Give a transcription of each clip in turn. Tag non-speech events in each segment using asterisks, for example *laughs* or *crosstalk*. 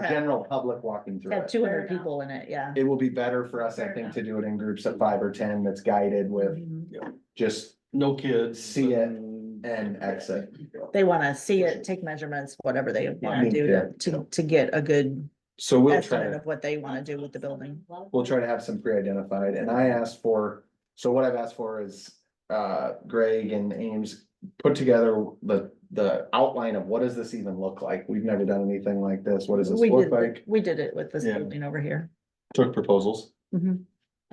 have general public walking through Have it. two hundred people in it, yeah. It will be better for us, I think, to do it in groups of five or ten that's guided with Mhm. just, No kids. See it and- and exit. They wanna see it, take measurements, whatever they wanna Yeah. do to, to, to get a good so we'll try estimate to, of what they wanna do with the building. we'll try to have some pre-identified and Mm-hmm. I asked for, so what I've asked for is uh Greg and Ames put together the, the outline of what does this even look like? We've never done anything like this. What does this We look did, like? we did it with this Yeah. building over here. Took proposals Mhm.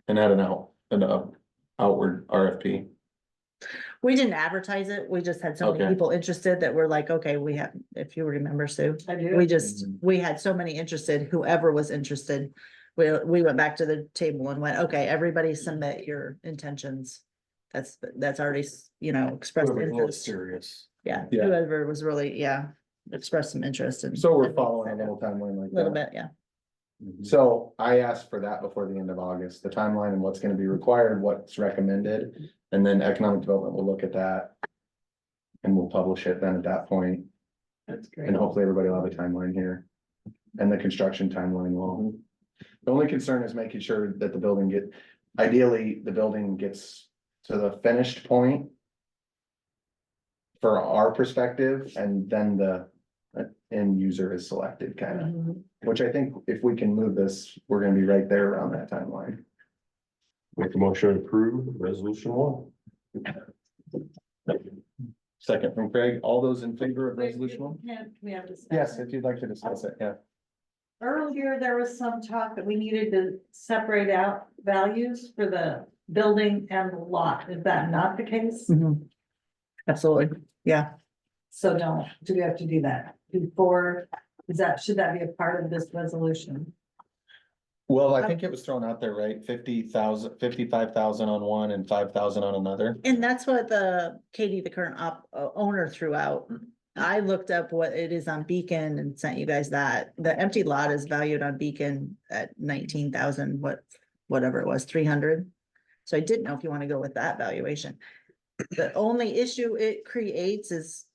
and had an out, an out- outward RFP. We didn't advertise it, we just had so many Okay. people interested that were like, okay, we have, if you remember Sue. I We do. just, we had so many interested, whoever was interested, we, we went back to the table and went, okay, everybody submit your intentions. That's, that's already, s- you know, expressed Whoever was interest, serious. yeah, Yeah. whoever was really, yeah, expressed some interest and. So we're following a little timeline like that. Little bit, yeah, So I asked for that before the end of August, the timeline and what's gonna be required, what's recommended, and then economic development will look at that. And we'll publish it then at that point, That's great. and hopefully everybody will have a timeline here. And the construction timeline will. The only concern is making sure that the building get, ideally, the building gets to the finished point. For our perspective, and then the uh, end user is selected, kind of. Mhm. Which I think if we can move this, we're gonna be right there around that timeline. Make a motion to approve resolution one. Second from Craig, all those in favor of resolution one? Can we have discussion? Yes, if you'd like to discuss it, yeah. Earlier, there was some talk that we needed to separate out values for the building and the lot. Is that not the case? Mhm. absolutely, yeah, So no, do we have to do that before? Is that, should that be a part of this resolution? Well, I think it was thrown out there, right? Fifty thousand, fifty-five thousand on one and five thousand on another. and that's what the Katie, the current op, uh, owner threw out. I looked up what it is on Beacon and sent you guys that, the empty lot is valued on Beacon at nineteen thousand, what, whatever it was, three hundred. So I didn't know if you want to go with that valuation. The only issue it creates is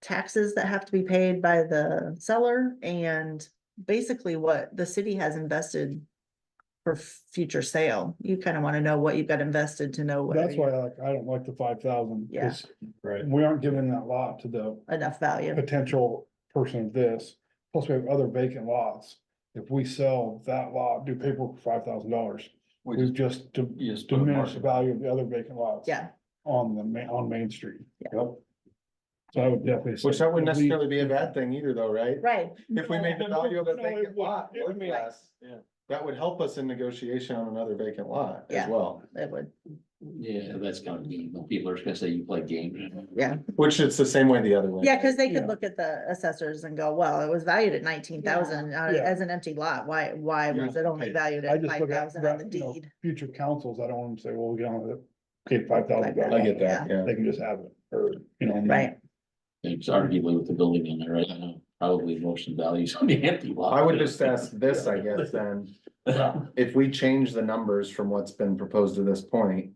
taxes that have to be paid by the seller and basically what the city has invested for future sale. You kind of want to know what you've got invested to know. whether That's why I like, I don't like the five thousand. Yeah. Right. We aren't giving that lot to the you're- Enough value. potential person of this, plus we have other vacant lots. If we sell that lot, do paperwork for five thousand dollars, We we've just, just d- you just put a diminished the mark. value of the other vacant lots. Yeah, On the ma- on Main Street. Yeah. Yep. So I would definitely. say Which that wouldn't at least- necessarily be a bad thing either though, right? right. If we *laughs* made the value of a vacant lot worth No, it wouldn't. less, Yeah. that would help us in negotiation on another vacant lot as Yeah. well. It would, Yeah, that's kind of mean, when people are just gonna say you play games. yeah, Which it's the same way the other way. yeah, because they could Yeah. look at the assessors and go, well, it was valued at nineteen thousand uh, Yeah. as an empty lot, why, why Yeah. was it only Hey, valued I at just five look at, thousand on the that, you know, deed? future councils, I don't want them to say, well, we get on with it, okay, five thousand. I get that, yeah. They can just have it, or, you know. Right, It's arguably with the building in there, right? I know, probably most of the values on the empty lot. I would just ask this, I guess, then. If we change the numbers from what's been proposed to this point,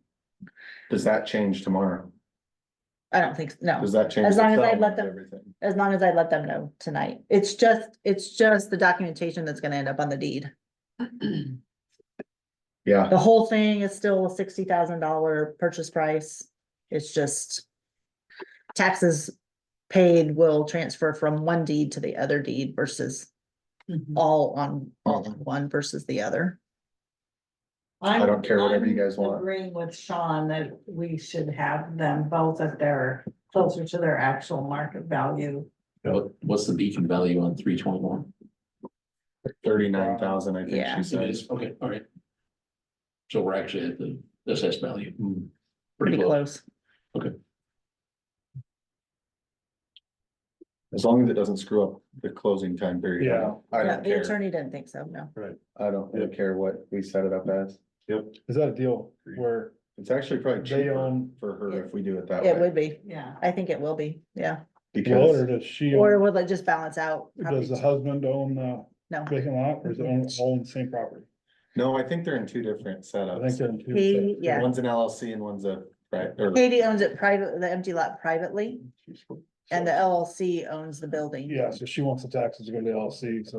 does that change tomorrow? I don't think, s- no, Does that change? As long as the I settlement let them- of everything? as long as I let them know tonight, it's just, it's just the documentation that's gonna end up on the deed. Yeah, The whole thing is still a sixty thousand dollar purchase price, it's just taxes paid will transfer from one deed to the other deed versus Mm-hmm. all on, all on one versus the other. I don't care whatever you I'm- guys I'm want. Agreeing with Sean that we should have them both at their, closer to their actual market value. *laughs* What, what's the beacon value on three twenty-one? thirty-nine thousand, I think Yeah. she says. okay, all right. So we're actually at the assessed value. Hmm. Pretty close. As long as it doesn't screw up the closing time period. I don't- I Yeah, don't the care. attorney didn't think so, no. I don't really care what we set it up as. Is that a deal where It's actually probably They cheaper own- for her if we do it that It way. would be. Yeah. I think it will be, yeah. Well, or Because does she, Or own- will it just balance out? does the husband own the No, vacant lot or is it own, own the same property? no, I think they're in two different I think setups. they're in two He- separate- yeah. One's an LLC and one's a, right, or Katie owns it private, the empty lot privately. And the LLC owns the building. Yeah, so she wants the taxes to go to the LLC, so